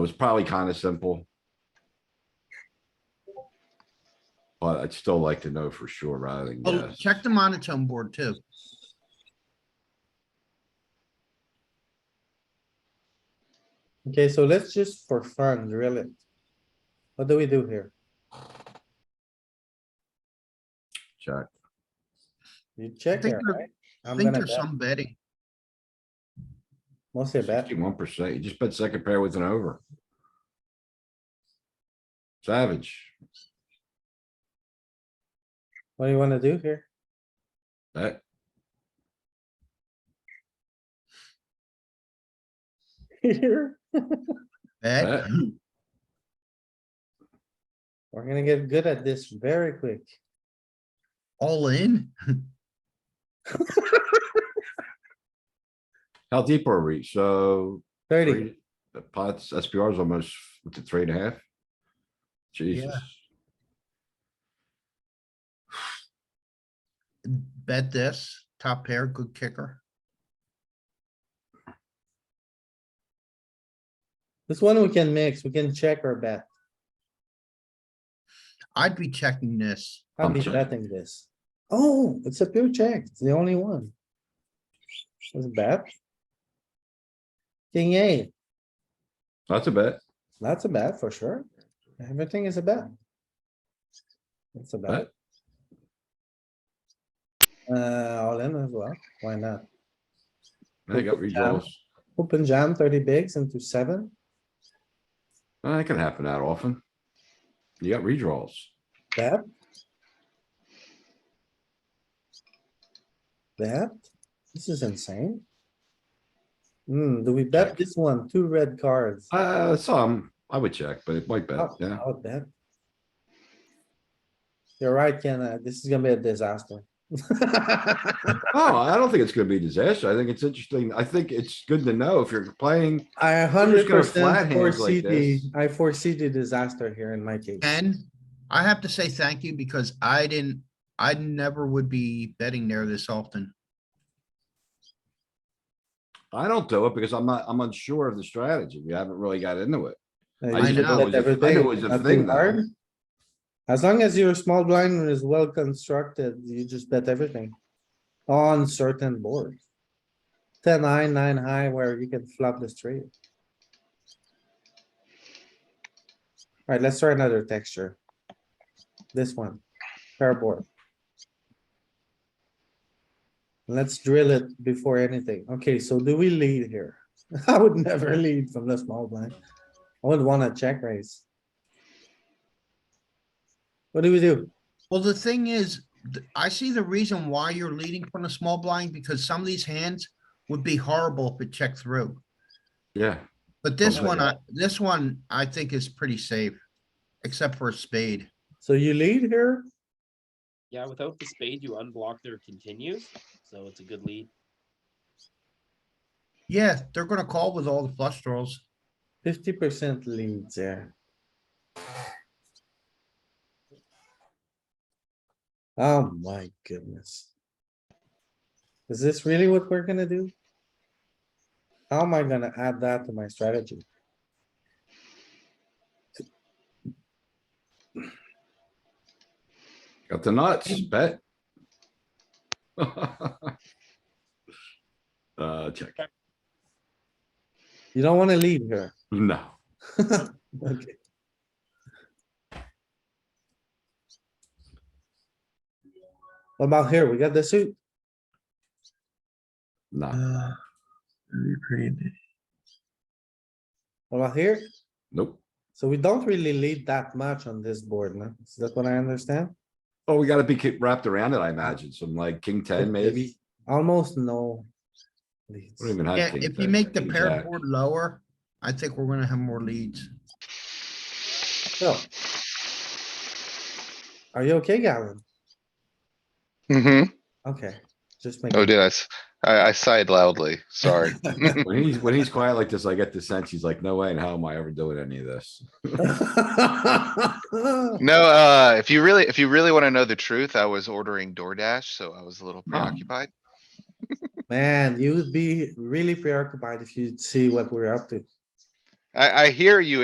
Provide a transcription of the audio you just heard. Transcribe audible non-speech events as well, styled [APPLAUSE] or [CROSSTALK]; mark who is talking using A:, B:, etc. A: It was probably kind of simple. But I'd still like to know for sure rather than
B: Oh,
A: guess.
B: check the monotone board too.
C: Okay, so let's just for fun, really. What do we do here?
A: Check.
C: You
B: I
C: check
B: think
C: here,
B: there-
C: right?
B: I
C: I'm
B: think
C: gonna
B: there's
C: bet,
B: some betting.
C: mostly bet.
A: Sixty-one percent. You just bet second pair with an over. Savage.
C: What do you wanna do here? [LAUGHS]
A: Bet.
C: Here,
B: Bet.
A: Bet.
C: we're gonna get good at this very quick.
B: all in.
A: How deep are we? So
C: Thirty,
A: three- the pots, SPR is almost to three and a half. Jesus.
B: Bet this, top pair, good kicker.
C: this one we can mix, we can check or bet.
B: I'd be checking this.
C: I'll
A: I'm
C: be
A: check.
C: betting this. Oh, it's a pure check, it's the only one. It's bad. King eight,
A: That's a bet.
C: that's a bet for sure. Everything is a bet. It's a bet. Uh, all in as well, why not?
A: I got redraws.
C: Open jam thirty bigs into seven,
A: Uh, That can happen that often. You got redraws.
C: bet. Bet, this is insane. Hmm, do we bet this one? Two red cards.
A: Uh, some, I would check, but it might bet,
C: Oh,
A: yeah.
C: I would bet. You're right, Ken, uh, this is gonna be a disaster. [LAUGHS]
A: Oh, I don't think it's gonna be a disaster. I think it's interesting. I think it's good to know if you're playing,
C: I a
A: just
C: hundred
A: gonna flat
C: percent
A: hands
C: foresee
A: like
C: the,
A: this.
C: I foresee the disaster here in my case.
B: And I have to say thank you because I didn't, I never would be betting there this often.
A: I don't do it because I'm not, I'm unsure of the strategy. We haven't really got into it.
C: Uh, you
A: I
C: should
A: didn't know it
C: bet
A: was a- I knew it
C: everything,
A: was a
C: nothing
A: thing, though.
C: hard. As long as your small blind is well constructed, you just bet everything on certain boards. Ten high, nine high, where you can flop the straight. Alright, let's try another texture. This one, pair board. Let's drill it before anything. Okay, so do we lead here? [LAUGHS] I would never lead from the small blind. I would wanna check raise. What do we do?
B: Well, the thing is, th- I see the reason why you're leading from the small blind because some of these hands would be horrible if it checked through.
A: Yeah,
B: But this
C: Oh,
A: Okay.
B: one, I, this one, I think is pretty safe, except for a spade.
C: So you lead here?
D: Yeah, without the spade, you unblock their continues, so it's a good lead.
B: Yeah, they're gonna call with all the flush draws.
C: Fifty percent leads there. Oh my goodness. Is this really what we're gonna do? How am I gonna add that to my strategy?
A: got the nuts, bet. [LAUGHS] Uh, check.
C: You don't wanna lead here.
A: No,
C: Okay. What about here? We got the suit.
A: no,
B: Uh,
C: What about here?
A: nope.
C: So we don't really lead that much on this board, no? Is that what I understand?
A: Oh, we gotta be ki- wrapped around it, I imagine. Some like king ten maybe.
C: Almost no. leads.
A: We don't even have
B: Yeah,
A: king
B: if you
A: 10,
B: make the
A: king
B: pair
A: jack.
B: board lower, I think we're gonna have more leads.
C: So. Are you okay, Gavin?
E: hmm
C: Okay, just make.
E: Oh, did I? s- I, I sighed loudly. Sorry.
A: When he's, when he's quiet like this, I get the sense he's like, no way, and how am I ever doing any of this?
C: [LAUGHS]
E: No, uh, if you really, if you really want to know the truth, I was ordering DoorDash, so I was a little
A: No.
E: preoccupied.
C: Man, you would be really preoccupied if you'd see what we're up to.
E: I, I hear you